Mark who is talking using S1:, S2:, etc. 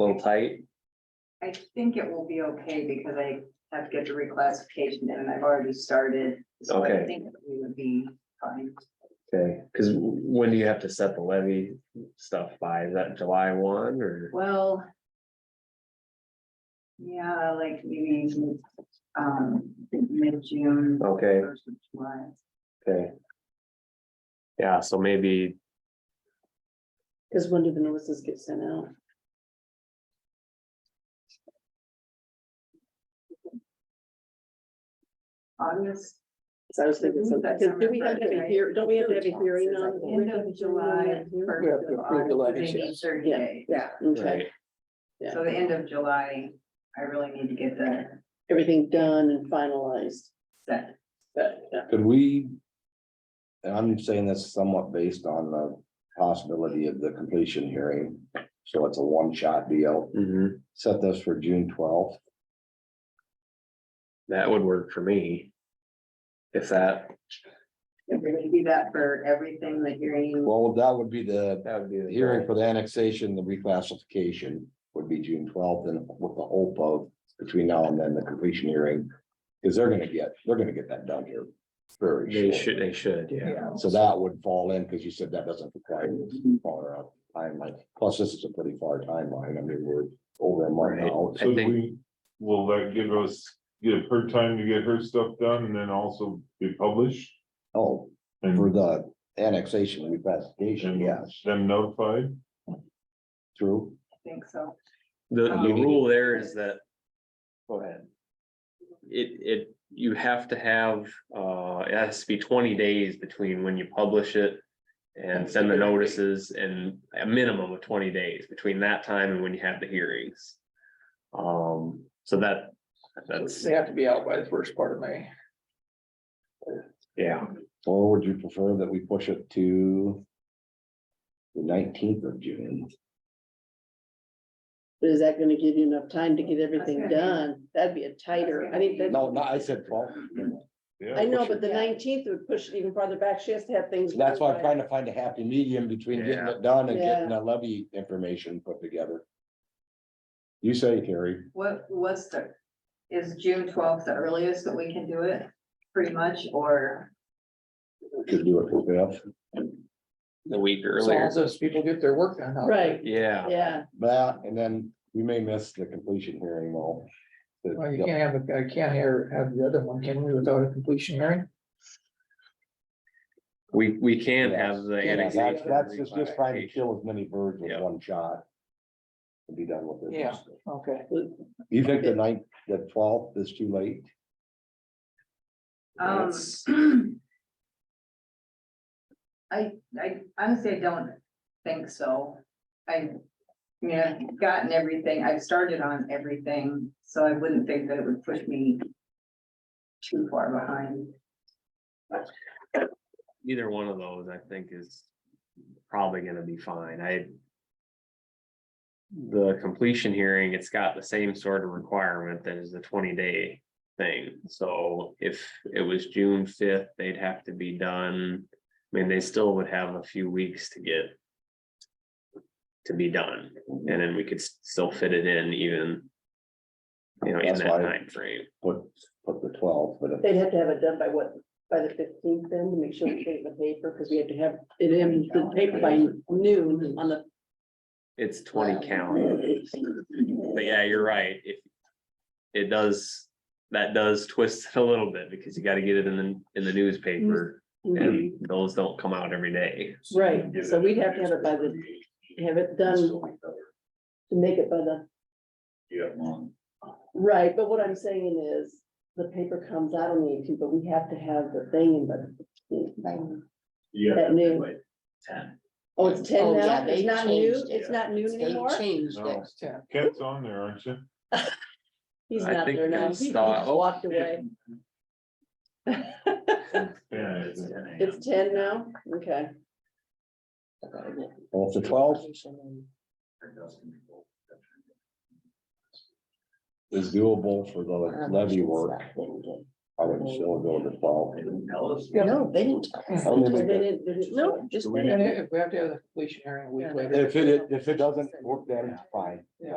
S1: a little tight.
S2: I think it will be okay because I have to get the reclassification in and I've already started. So I
S1: Okay.
S2: think we would be fine.
S1: Okay, because when do you have to set the levy stuff by? Is that July one or?
S2: Well. Yeah, like maybe, um, mid-June.
S1: Okay,
S2: first of July.
S1: okay. Yeah, so maybe,
S3: Cause when do the notices get sent out?
S2: August,
S3: So I was thinking
S2: Mhm,
S3: something,
S2: that's
S3: cause do we
S2: summer
S3: have to have a
S2: birthday.
S3: hear, don't we have to have a
S2: Taxes,
S3: hearing
S2: I
S3: on?
S2: think. End of July,
S3: Yeah,
S4: We have to
S2: first of
S4: approve
S2: August,
S4: the levies,
S2: they need
S4: yes.
S2: thirty days.
S3: Yeah, okay,
S1: right,
S3: yeah.
S2: So the end of July, I really need to get the
S3: everything done and finalized,
S2: set.
S3: but, yeah.
S4: Could we? And I'm saying this somewhat based on the possibility of the completion hearing, so it's a one-shot deal.
S1: mhm,
S4: Set this for June twelfth.
S1: that would work for me. If that,
S2: If We're gonna do that for everything, the hearing.
S4: Well, that would be the
S1: that would be the
S4: hearing for the annexation, the reclassification would be June twelfth and with the hope of between now and then the completion hearing. Because they're gonna get, they're gonna get that done here very
S1: They
S4: shortly.
S1: should, they should, yeah.
S4: So that would fall in, because you said that doesn't require far out timeline, plus this is a pretty far timeline, I mean, we're over a month
S1: Right.
S4: out.
S1: I
S5: So do
S1: think-
S5: we, will that give us, give her time to get her stuff done and then also be published?
S4: Oh, for
S5: And
S4: the annexation reclassification,
S6: Mm-hmm.
S4: yes,
S5: then notified?
S4: true,
S2: I think so.
S1: The,
S2: Um,
S1: the rule there is that. Go ahead. It, it, you have to have, uh, it has to be twenty days between when you publish it. And send the notices and a minimum of twenty days between that time and when you have the hearings. Um, so that, that's,
S6: They have to be out by the first part of May.
S1: yeah,
S4: or would you prefer that we push it to? The nineteenth of June,
S3: But is that gonna give you enough time to get everything
S2: That's gonna
S3: done? That'd be a tighter, I think that.
S4: no, no, I said twelve,
S3: I know,
S4: push it.
S3: but the nineteenth would push it even farther back, she has to have things.
S4: that's why I'm
S3: done
S4: trying to find a happy medium between getting it done and
S3: Yeah.
S4: getting the levy information put together. You say, Terry,
S2: What was the, is June twelfth the earliest that we can do it, pretty much, or?
S4: could do it for fifth,
S1: the week
S6: As long
S1: earlier,
S6: as those people get their work done.
S3: by.
S6: huh?
S3: Right,
S1: yeah,
S3: yeah,
S4: that, and then we may miss the completion hearing though. The-
S6: Well, you can't have, a- I can't have, have the other one, can we, without a completion hearing?
S1: we, we can have the
S4: Yeah, that's-
S1: annexation.
S4: That's just, just trying to kill as many birds with
S1: Yeah.
S4: one shot. And be done with it.
S6: Yeah. Okay.
S4: You think the ninth, the twelfth is too late?
S2: Um,
S1: That's-
S2: I, I honestly, I don't think so. I, I mean, I've gotten everything, I've started on everything, so I wouldn't think that it would push me too far behind.
S1: Either one of those, I think is probably gonna be fine, I. The completion hearing, it's got the same sort of requirement that is the twenty day thing, so if it was June fifth, they'd have to be done. I mean, they still would have a few weeks to get. To be done, and then we could s- still fit it in even. You know, in
S4: That's
S1: that
S4: why-
S1: timeframe,
S4: Put, put the twelfth, but if-
S3: they'd have to have it done by what, by the fifteenth then, to make sure we get it in the paper, cause we have to have it in the paper by noon on the.
S1: it's twenty calendar. But yeah, you're right, if. It does, that does twist it a little bit because you gotta get it in the, in the newspaper
S3: Mm-hmm.
S1: and those don't come out every day.
S3: Right, so we'd have to have it by the, have it done to make it by the,
S5: Yeah.
S3: right, but what I'm saying is. The paper comes out on the eighteenth, but we have to have the thing in by the fifteenth. At noon. Oh, it's ten
S7: Oh,
S3: now,
S7: yeah, they
S3: it's not new,
S7: changed
S3: it's not new
S7: They
S3: anymore?
S7: changed
S5: No.
S7: it.
S6: Yeah.
S5: Cat's on there, aren't you?
S3: He's
S1: I
S3: not
S1: think
S3: there now,
S1: it's
S3: he he
S1: not-
S3: just walked away,
S5: Yeah. it's-
S3: it's ten now, okay.
S4: well, if the twelfth is doable for the levy work, I would still go to twelve.
S7: No, they didn't. tell us.
S4: I don't
S3: They
S4: think that-
S3: didn't- they didn't- No, just.
S4: Do
S6: And if we have to have the completion hearing a week later.
S4: If it, if it doesn't work, then it's fine.